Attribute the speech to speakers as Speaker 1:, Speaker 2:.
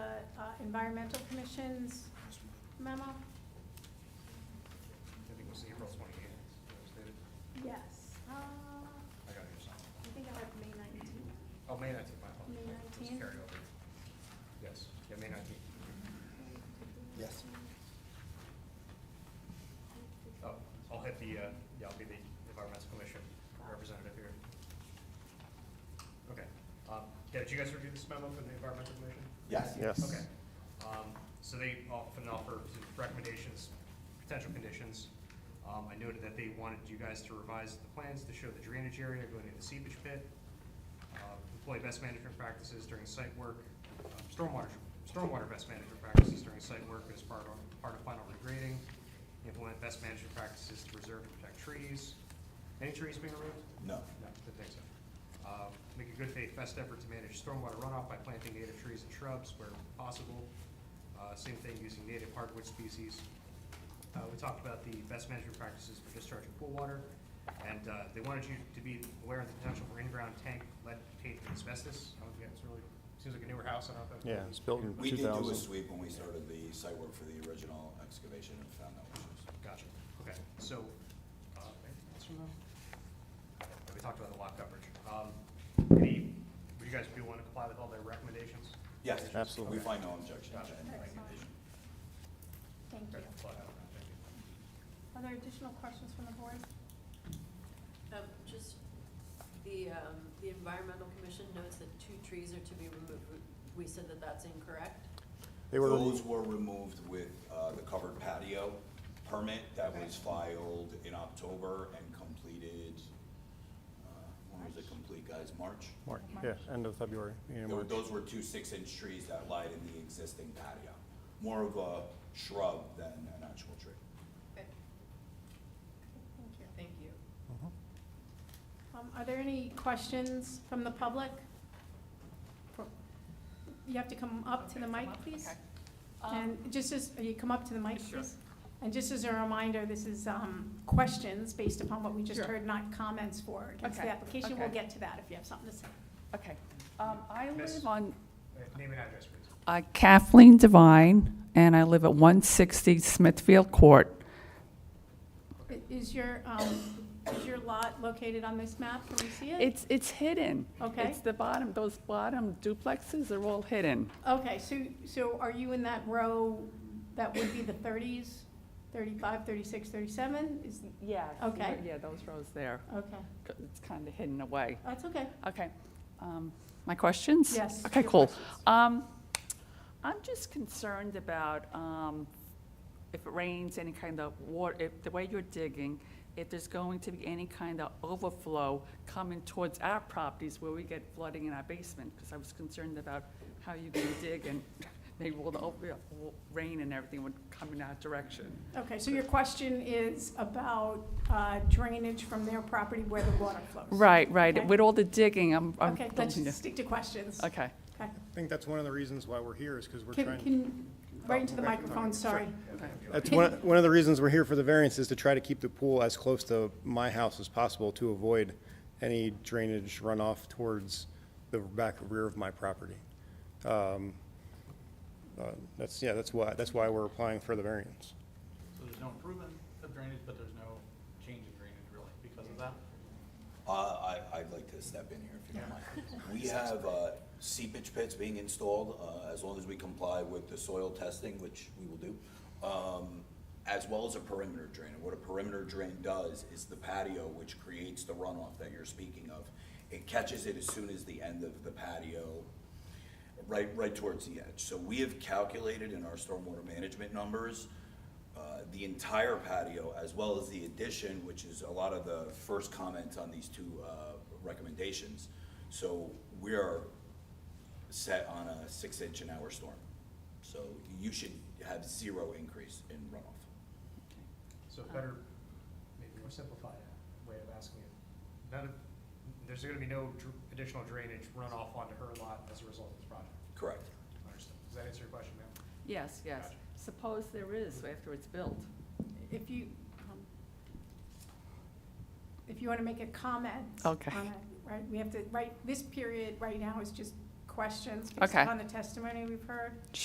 Speaker 1: uh, environmental commission's memo?
Speaker 2: I think it was April twenty-eighth.
Speaker 1: Yes. Uh, I
Speaker 2: I got it here somewhere.
Speaker 1: think I have May nineteenth.
Speaker 2: Oh, May nineteenth, my apologies.
Speaker 1: May
Speaker 2: It was
Speaker 1: 19th.
Speaker 2: carryover. Yes, yeah, May nineteenth.
Speaker 3: Yes.
Speaker 2: Oh, I'll hit the, uh, yeah, I'll be the environmental commission representative here. Okay. Um, yeah, did you guys review this memo from the environmental commission?
Speaker 3: Yes.
Speaker 4: Yes.
Speaker 2: Okay. Um, So they often offer some recommendations, potential conditions. Um, I noted that they wanted you guys to revise the plans to show the drainage area going into the seepage pit, uh, employ best management practices during site work, uh, stormwater, stormwater best management practices during site work as part of, part of final regrading, implement best management practices to reserve and protect trees. Any trees being removed?
Speaker 3: No.
Speaker 2: No, didn't think so. Uh, Make a good faith best effort to manage stormwater runoff by planting native trees and shrubs where possible. Uh, Same thing using native hardwood species. Uh, We talked about the best management practices for discharging pool water, and uh, they wanted you to be aware of the potential for in-ground tank lead paint and asbestos. I don't think that's really, seems like a newer house, I don't know. if that-
Speaker 4: Yeah, it's built in
Speaker 3: We
Speaker 4: two
Speaker 3: did do a
Speaker 4: thousand.
Speaker 3: sweep when we started the site work for the original excavation and found no issues.
Speaker 2: Gotcha, okay, so, uh, anything else from them? Yeah, We talked about the lot coverage. Um, Any, would you guys be willing to comply with all their recommendations?
Speaker 3: Yes.
Speaker 4: Absolutely.
Speaker 3: We find no objection to any
Speaker 1: Excellent.
Speaker 3: recommendation.
Speaker 1: Thank you.
Speaker 2: Okay, well, thank you.
Speaker 1: Are there additional questions from the board?
Speaker 5: Um, just, the, um, the environmental commission notes that two trees are to be removed. We- We said that that's incorrect.
Speaker 4: They were,
Speaker 3: Those were removed with uh, the covered patio permit that was filed in October and completed, uh, when was it complete, guys? March?
Speaker 4: March, yeah, end of February, beginning
Speaker 3: There were-
Speaker 4: of March.
Speaker 3: Those were two six-inch trees that lied in the existing patio. More of a shrub than an actual tree.
Speaker 1: Thank you.
Speaker 5: Thank you.
Speaker 1: Um, are there any questions from the public? For- You have to come up to the mic, please. And just as, you come up to the mic,
Speaker 5: Sure.
Speaker 1: please. And just as a reminder, this is, um, questions based upon what we just
Speaker 6: Sure.
Speaker 1: heard, not comments for or against the
Speaker 6: Okay,
Speaker 1: application. We'll
Speaker 6: okay.
Speaker 1: get to that if you have something to say.
Speaker 6: Okay, um, I
Speaker 2: Miss-
Speaker 6: live on
Speaker 2: Uh, Name and address, please.
Speaker 6: uh, Kathleen Devine, and I live at one sixty Smithfield Court.
Speaker 1: I- Is your, um, is your lot located on this map? Can we see it?
Speaker 6: It's, it's hidden.
Speaker 1: Okay.
Speaker 6: It's the bottom, those bottom duplexes are all hidden.
Speaker 1: Okay, so, so are you in that row that would be the thirties, thirty-five, thirty-six, thirty-seven? Is,
Speaker 6: Yeah.
Speaker 1: Okay.
Speaker 6: Yeah, those rows there,
Speaker 1: okay,
Speaker 6: it's kind of hidden away.
Speaker 1: that's okay.
Speaker 6: Okay, um, my questions?
Speaker 1: Yes,
Speaker 6: Okay,
Speaker 1: your
Speaker 6: cool.
Speaker 1: questions.
Speaker 6: Um, I'm just concerned about, um, if it rains, any kind of water, if, the way you're digging, if there's going to be any kind of overflow coming towards our properties where we get flooding in our basement, because I was concerned about how you can dig and maybe all the, over- yeah, wa- rain and everything would come in our direction.
Speaker 1: Okay, so your question is about uh, drainage from their property where the water flows?
Speaker 6: Right,
Speaker 1: Okay.
Speaker 6: right, with all the digging, I'm, I'm.
Speaker 1: Okay, let's just stick to questions.
Speaker 6: Okay.
Speaker 1: Okay.
Speaker 7: I think that's one of the reasons why we're here is because we're
Speaker 1: Can,
Speaker 7: trying,
Speaker 1: can, right into the microphone, sorry.
Speaker 7: that's one, one of the reasons we're here for the variance is to try to keep the pool as close to my house as possible to avoid any drainage runoff towards the back rear of my property. Um, uh, That's, yeah, that's why, that's why we're applying for the variance.
Speaker 8: So there's no improvement of drainage, but there's no change in drainage really because of that?
Speaker 3: Uh, I, I'd like to step in here if you don't mind. We have uh, seepage pits being installed, uh, as long as we comply with the soil testing, which we will do, um, as well as a perimeter drain. And what a perimeter drain does is the patio, which creates the runoff that you're speaking of, it catches it as soon as the end of the patio right, right towards the edge. So we have calculated in our stormwater management numbers, uh, the entire patio as well as the addition, which is a lot of the first comments on these two, uh, recommendations. So we are set on a six-inch an hour storm. So you should have zero increase in runoff.
Speaker 2: So better, maybe more simplified uh, way of asking it. None of, there's gonna be no dr- additional drainage runoff onto her lot as a result of this project.
Speaker 3: Correct.
Speaker 2: Understood. Does that answer your question, ma'am?
Speaker 6: Yes, yes.
Speaker 2: Gotcha.
Speaker 6: Suppose there is after it's built.
Speaker 1: If you, um, if you want to make a comment.
Speaker 6: Okay.
Speaker 1: on it, Right, we have to, right, this period right now is just questions based
Speaker 6: Okay.
Speaker 1: upon the testimony we've heard.